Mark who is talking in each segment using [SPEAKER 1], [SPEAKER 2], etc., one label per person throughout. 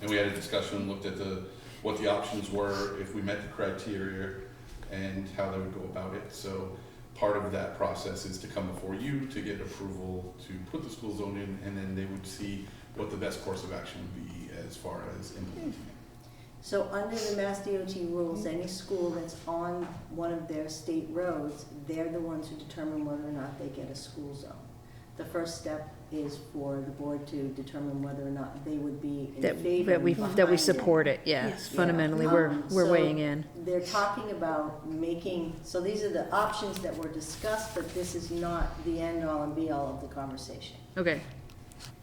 [SPEAKER 1] And we had a discussion, looked at the, what the options were, if we met the criteria, and how they would go about it. So part of that process is to come before you to get approval to put the school zone in, and then they would see what the best course of action would be as far as implementing it.
[SPEAKER 2] So under the Mass DOT rules, any school that's on one of their state roads, they're the ones who determine whether or not they get a school zone. The first step is for the board to determine whether or not they would be in
[SPEAKER 3] That,
[SPEAKER 2] favor
[SPEAKER 3] that we,
[SPEAKER 2] and
[SPEAKER 3] that
[SPEAKER 2] behind
[SPEAKER 3] we
[SPEAKER 2] it.
[SPEAKER 3] support it, yeah,
[SPEAKER 4] Yes.
[SPEAKER 3] fundamentally, we're,
[SPEAKER 2] Um,
[SPEAKER 3] we're
[SPEAKER 2] so
[SPEAKER 3] weighing in.
[SPEAKER 2] They're talking about making, so these are the options that were discussed, but this is not the end all and be all of the conversation.
[SPEAKER 3] Okay,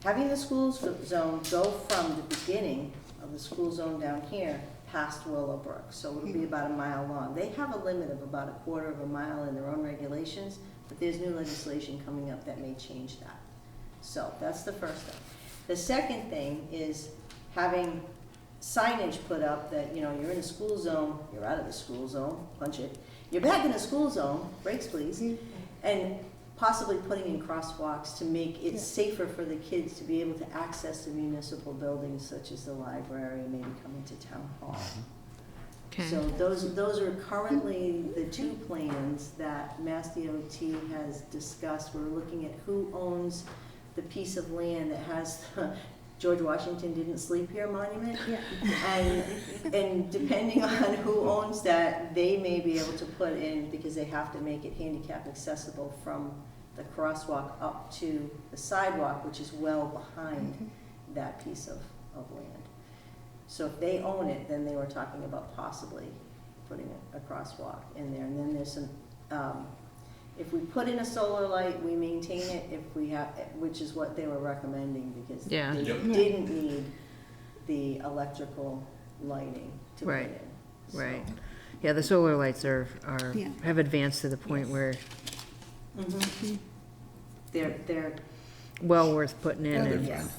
[SPEAKER 2] Having the school zo- zone go from the beginning of the school zone down here past Willowbrook, so it'll be about a mile long. They have a limit of about a quarter of a mile in their own regulations, but there's new legislation coming up that may change that. So that's the first thing. The second thing is having signage put up that, you know, you're in a school zone, you're out of the school zone, punch it. You're back in the school zone, brakes please, and possibly putting in crosswalks to make it safer for the kids to be able to access the municipal buildings such as the library, maybe coming to town hall.
[SPEAKER 3] okay.
[SPEAKER 2] So those, those are currently the two plans that Mass DOT has discussed. We're looking at who owns the piece of land that has the George Washington didn't sleep here monument. And, and depending on who owns that, they may be able to put in, because they have to make it handicap accessible from the crosswalk up to the sidewalk, which is well behind that piece of, of land. So if they own it, then they were talking about possibly putting a a crosswalk in there. And then there's some, um, if we put in a solar light, we maintain it if we have, which is what they were recommending because they
[SPEAKER 3] Yeah.
[SPEAKER 1] Yep.
[SPEAKER 2] didn't need the electrical lighting to put
[SPEAKER 3] Right,
[SPEAKER 2] in. So-
[SPEAKER 3] Right, yeah, the solar lights are, are,
[SPEAKER 4] Yeah.
[SPEAKER 3] have advanced to the point
[SPEAKER 4] Yes.
[SPEAKER 3] where
[SPEAKER 2] Mhm. They're, they're,
[SPEAKER 3] well worth putting in
[SPEAKER 4] Yeah,
[SPEAKER 3] and,
[SPEAKER 2] yes.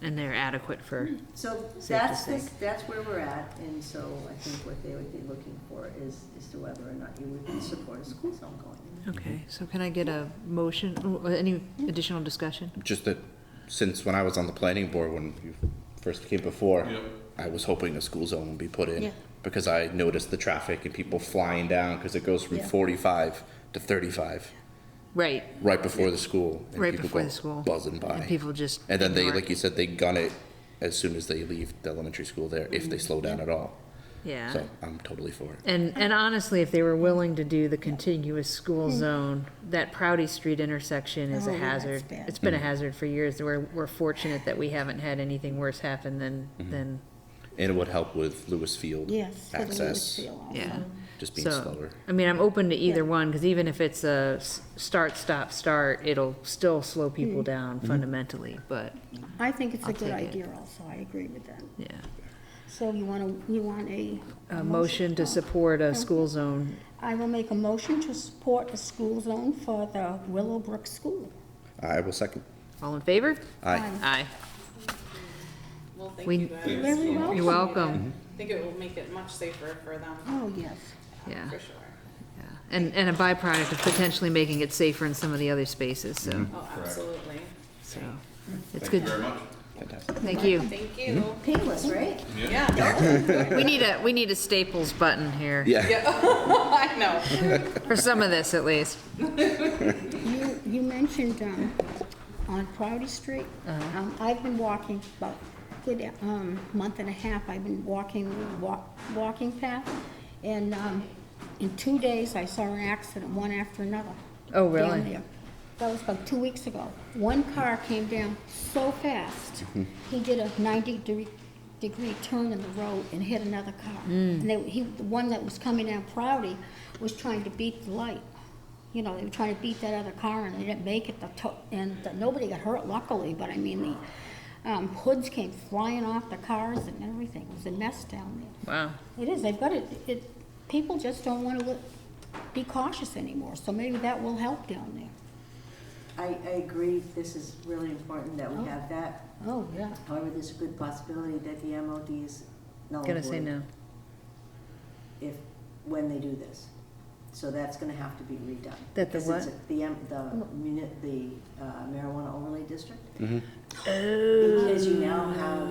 [SPEAKER 3] and they're adequate for,
[SPEAKER 2] So
[SPEAKER 3] Safe to
[SPEAKER 2] that's, the-
[SPEAKER 3] say.
[SPEAKER 2] that's where we're at, and so I think what they would be looking for is, is to whether or not you would support a school zone going in.
[SPEAKER 3] okay, so can I get a motion, or any additional discussion?
[SPEAKER 5] Just that since when I was on the planning board, when you first came before,
[SPEAKER 1] Yep.
[SPEAKER 5] I was hoping a school zone would be put in
[SPEAKER 4] Yeah.
[SPEAKER 5] because I noticed the traffic and people flying down because it goes from 45 to 35
[SPEAKER 3] Right,
[SPEAKER 5] right before the school. And
[SPEAKER 3] right
[SPEAKER 5] people
[SPEAKER 3] before
[SPEAKER 5] go
[SPEAKER 3] the school.
[SPEAKER 5] Buzzing by.
[SPEAKER 3] And people just.
[SPEAKER 5] And then they,
[SPEAKER 3] ignore it.
[SPEAKER 5] like you said, they gun it as soon as they leave the elementary school there, if they slow down at all.
[SPEAKER 3] Yeah.
[SPEAKER 5] So I'm totally for it.
[SPEAKER 3] And, and honestly, if they were willing to do the contiguous school zone, that Proudy Street intersection is
[SPEAKER 4] Hmm. Oh,
[SPEAKER 3] a
[SPEAKER 4] yeah, it's
[SPEAKER 3] hazard.
[SPEAKER 4] bad.
[SPEAKER 3] It's been a hazard for years. We're, we're fortunate that we haven't had anything worse happen than,
[SPEAKER 5] Mm-hmm.
[SPEAKER 3] than,
[SPEAKER 5] And it would help with Lewis Field
[SPEAKER 4] Yes. for the
[SPEAKER 5] access,
[SPEAKER 4] Lucasfilm also.
[SPEAKER 3] yeah.
[SPEAKER 5] just being
[SPEAKER 3] So,
[SPEAKER 5] slower.
[SPEAKER 3] I mean, I'm open to either
[SPEAKER 4] Yeah.
[SPEAKER 3] one, because even if it's a s- start, stop, start, it'll still slow
[SPEAKER 4] Mm-hmm.
[SPEAKER 3] people down
[SPEAKER 5] Mm-hmm.
[SPEAKER 3] fundamentally, but,
[SPEAKER 4] I think it's
[SPEAKER 3] I'll
[SPEAKER 4] a good
[SPEAKER 3] take it.
[SPEAKER 4] idea also, I agree with that.
[SPEAKER 3] yeah.
[SPEAKER 4] So you want a, you want a? Oh,
[SPEAKER 3] A motion to support a school zone,
[SPEAKER 4] I will make a motion to support a school zone for the Willowbrook School.
[SPEAKER 5] I will second.
[SPEAKER 3] all in favor?
[SPEAKER 5] Aye.
[SPEAKER 3] Aye.
[SPEAKER 6] Well, thank
[SPEAKER 3] We-
[SPEAKER 6] you guys.
[SPEAKER 1] Thanks.
[SPEAKER 4] Very well.
[SPEAKER 3] You're welcome,
[SPEAKER 6] I think it will make it much safer for them,
[SPEAKER 4] Oh, yes.
[SPEAKER 3] yeah.
[SPEAKER 6] for sure.
[SPEAKER 3] Yeah, And, and a byproduct of potentially making it safer in some of the other spaces,
[SPEAKER 5] Mm-hmm.
[SPEAKER 3] so,
[SPEAKER 6] Oh,
[SPEAKER 1] Correct.
[SPEAKER 6] absolutely.
[SPEAKER 3] so, it's
[SPEAKER 1] Thank you
[SPEAKER 3] good,
[SPEAKER 1] very much.
[SPEAKER 5] Fantastic.
[SPEAKER 3] thank you.
[SPEAKER 6] Thank you.
[SPEAKER 2] Painless, right?
[SPEAKER 6] Yeah,
[SPEAKER 3] We need a, we need a Staples button here,
[SPEAKER 5] Yeah.
[SPEAKER 6] I know.
[SPEAKER 3] for some of this at least.
[SPEAKER 4] You, you mentioned, um, on Crowdy Street.
[SPEAKER 3] Uh-huh.
[SPEAKER 4] Um, I've been walking about a good, um, month and a half, I've been walking, walk, walking path. And, um, in two days, I saw an accident, one after another.
[SPEAKER 3] Oh,
[SPEAKER 4] down
[SPEAKER 3] really?
[SPEAKER 4] there. That was about two weeks ago. One car came down so fast, he did a ninety de- degree turn in the road and hit another car. And they, he, the one that was coming down Proudy was trying to beat the light. You know, they were trying to beat that other car and they didn't make it, the to- and the- nobody got hurt luckily, but I mean, the, um, hoods came flying off the cars and everything. It was a mess down there.
[SPEAKER 3] Wow,
[SPEAKER 4] It is, they've got it, it, people just don't wanna look, be cautious anymore, so maybe that will help down there.
[SPEAKER 2] I, I agree, this is really important that we have that.
[SPEAKER 4] Oh, yeah.
[SPEAKER 2] However, there's a good possibility that the MOD is null and
[SPEAKER 3] gonna say
[SPEAKER 2] void
[SPEAKER 3] no.
[SPEAKER 2] If, when they do this. So that's gonna have to be redone.
[SPEAKER 3] That the Oh.
[SPEAKER 2] Because it's a- The, M- the
[SPEAKER 3] Oh.
[SPEAKER 2] muni, the uh, marijuana overlay district. Because you now have